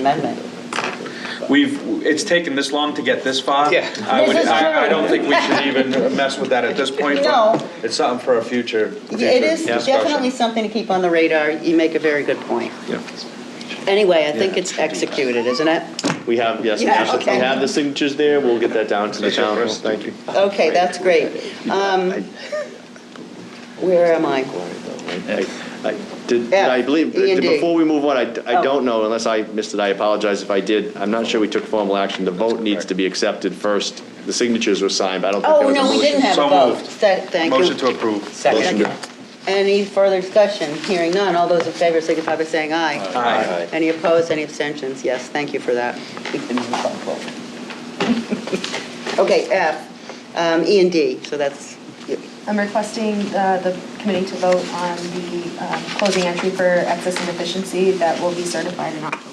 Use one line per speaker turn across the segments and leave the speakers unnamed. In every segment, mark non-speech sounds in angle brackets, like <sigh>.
amendment.
We've, it's taken this long to get this far.
Yeah.
I would,
This is
I,
true.
I don't think we should even mess with that at this point. but
No.
It's something for a future.
It
future
is
discussion.
definitely something to keep on the radar. You make a very good point.
Yeah.
Anyway, I think it's executed, isn't it?
We have, yes, we
Yeah,
have, the-
okay.
we have the signatures there, we'll get that down to the town. Thank you.
Okay, that's great. Um, Where am I?
I- I Did,
F,
I believe,
E and D.
before we move on, I, I
Oh.
don't know, unless I missed it, I apologize if I did. I'm not sure we took formal action. The vote needs to be accepted first. The signatures were signed, but I don't think there
Oh,
was a
no, we
motion.
didn't have a
So
vote.
moved.
Tha- Thank you.
Motion to approve.
Motion to-
Any further discussion? Hearing none. All those in favor signify by saying aye.
Aye.
Any opposed, any abstentions? Yes, thank you for that. <laughs> We can move on forward. Okay, F, um, E and D, so that's,
I'm requesting uh, the committee to vote on the um, closing entry for excess and deficiency that will be certified in October.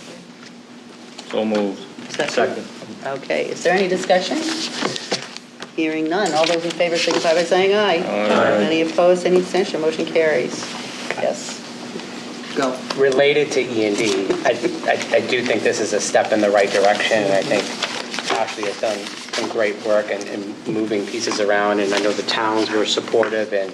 So moved.
Is that- okay. Is there any discussion? Hearing none. All those in favor signify by saying aye.
Aye.
Any opposed, any abstention? Motion carries. Yes. Go.
Related to E and D, I, I- I do think this is a step in the right direction, and I think Ashley has done some great work in, in moving pieces around, and I know the towns were supportive and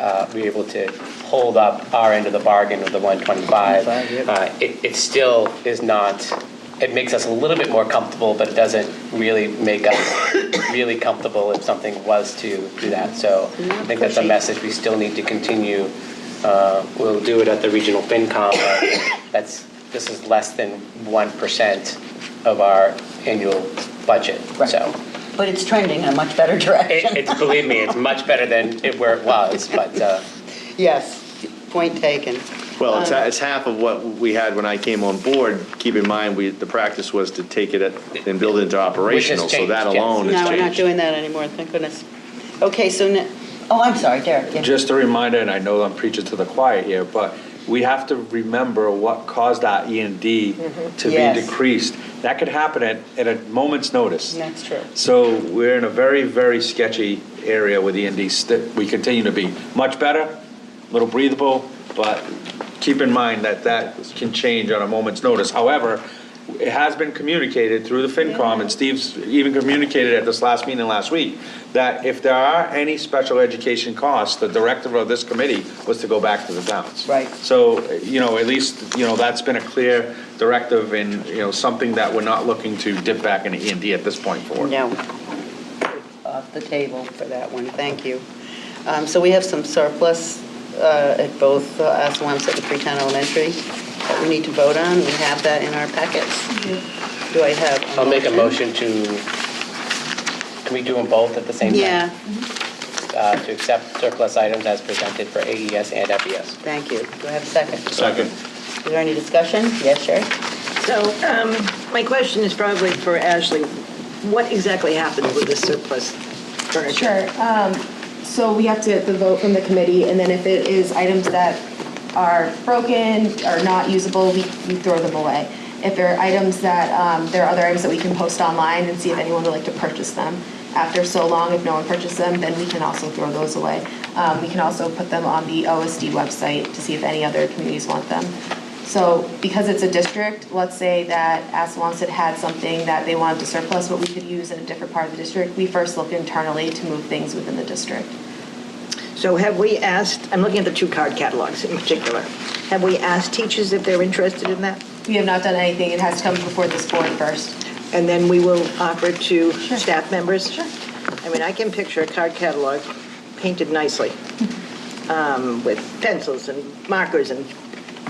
uh, we were able to hold up our end of the bargain of the 125. Uh, It, it still is not, it makes us a little bit more comfortable, but it doesn't really make us really comfortable if something was to do that. So I think that's a
Pushy.
message we still need to continue uh, We'll do it at the regional FinCom. but That's, this is less than 1% of our annual budget,
Right.
so.
But it's trending in a much better <laughs> direction.
It- It's, believe me, it's much better than it- where it was, but uh,
Yes, point taken.
Well, it's,
Uh.
it's half of what we had when I came on board. Keep in mind, we, the practice was to take it at- and build it into operational, so
changed,
that
yes.
alone
No,
has
we're not
changed.
doing that anymore, thank goodness. Okay, so, ne- oh, I'm sorry, Derek. yeah.
Just a reminder, and I know I'm preaching to the choir here, but we have to remember what caused our E and D to
Yes.
be decreased. That could happen at, at a moment's notice.
That's true.
So we're in a very, very sketchy area with E and D. St- We continue to be much better, a little breathable, but keep in mind that that can change on a moment's notice. However, it has been communicated through the FinCom, and Steve's even communicated at this last meeting last week, that if there are any special education costs, the directive of this committee was to go back to the towns.
Right.
So, you know, at least, you know, that's been a clear directive and, you know, something that we're not looking to dip back into E and D at this point for.
No. Off the table for that one, thank you. Um, So we have some surplus uh, at both uh, Assawamsett and Freetown Elementary that we need to vote on. We have that in our packets. Do I have?
I'll make a motion to, can we do them both at the same time?
Yeah,
Uh, To accept surplus items as presented for AES and E FES.
thank you. Do I have a second?
Second.
Is there any discussion? Yes, Sherry?
So um, my question is probably for Ashley. What exactly happened with the surplus furniture?
Sure. um, So we have to get the vote from the committee, and then if it is items that are broken, are not usable, we we throw them away. If there are items that, um, there are other items that we can post online and see if anyone would like to purchase them. After so long, if no one purchased them, then we can also throw those away. Um, We can also put them on the OSD website to see if any other communities want them. So because it's a district, let's say that Assawamsett had something that they wanted to surplus, but we could use in a different part of the district, we first look internally to move things within the district.
So have we asked, I'm looking at the two card catalogs in particular. Have we asked teachers if they're interested in that?
We have not done anything, it has to come before this board first.
And then we will offer it to staff members? Sure. I mean, I can picture a card catalog painted nicely um, with pencils and markers and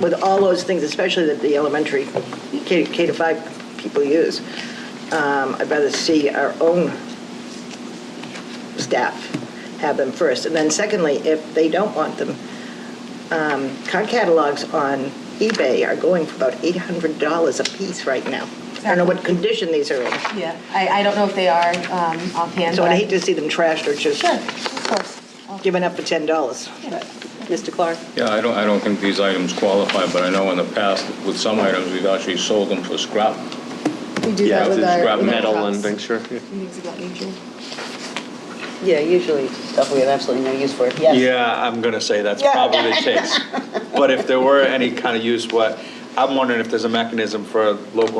with all those things, especially that the elementary K K to five people use. Um, I'd rather see our own staff have them first. And then secondly, if they don't want them, um, card catalogs on eBay are going for about $800 a piece right now. I don't know what condition these are in,
Yeah, I, I don't know if they are um, offhand.
so I'd
but-
hate to see them trashed or just
Sure, of course. I'll-
given up for $10.
Mr. Clark?
Yeah, I don't, I don't think these items qualify, but I know in the past, with some items, we've actually sold them for scrap.
We do
Yeah,
that with
it's
our.
scrap
with our
metal and
cups
things, sure. yeah.
Things of that nature.
Yeah, usually stuff we have absolutely no use for. Yes.
Yeah, I'm gonna say that's probably the case. But if there were any kind of use, what I'm wondering if there's a mechanism for local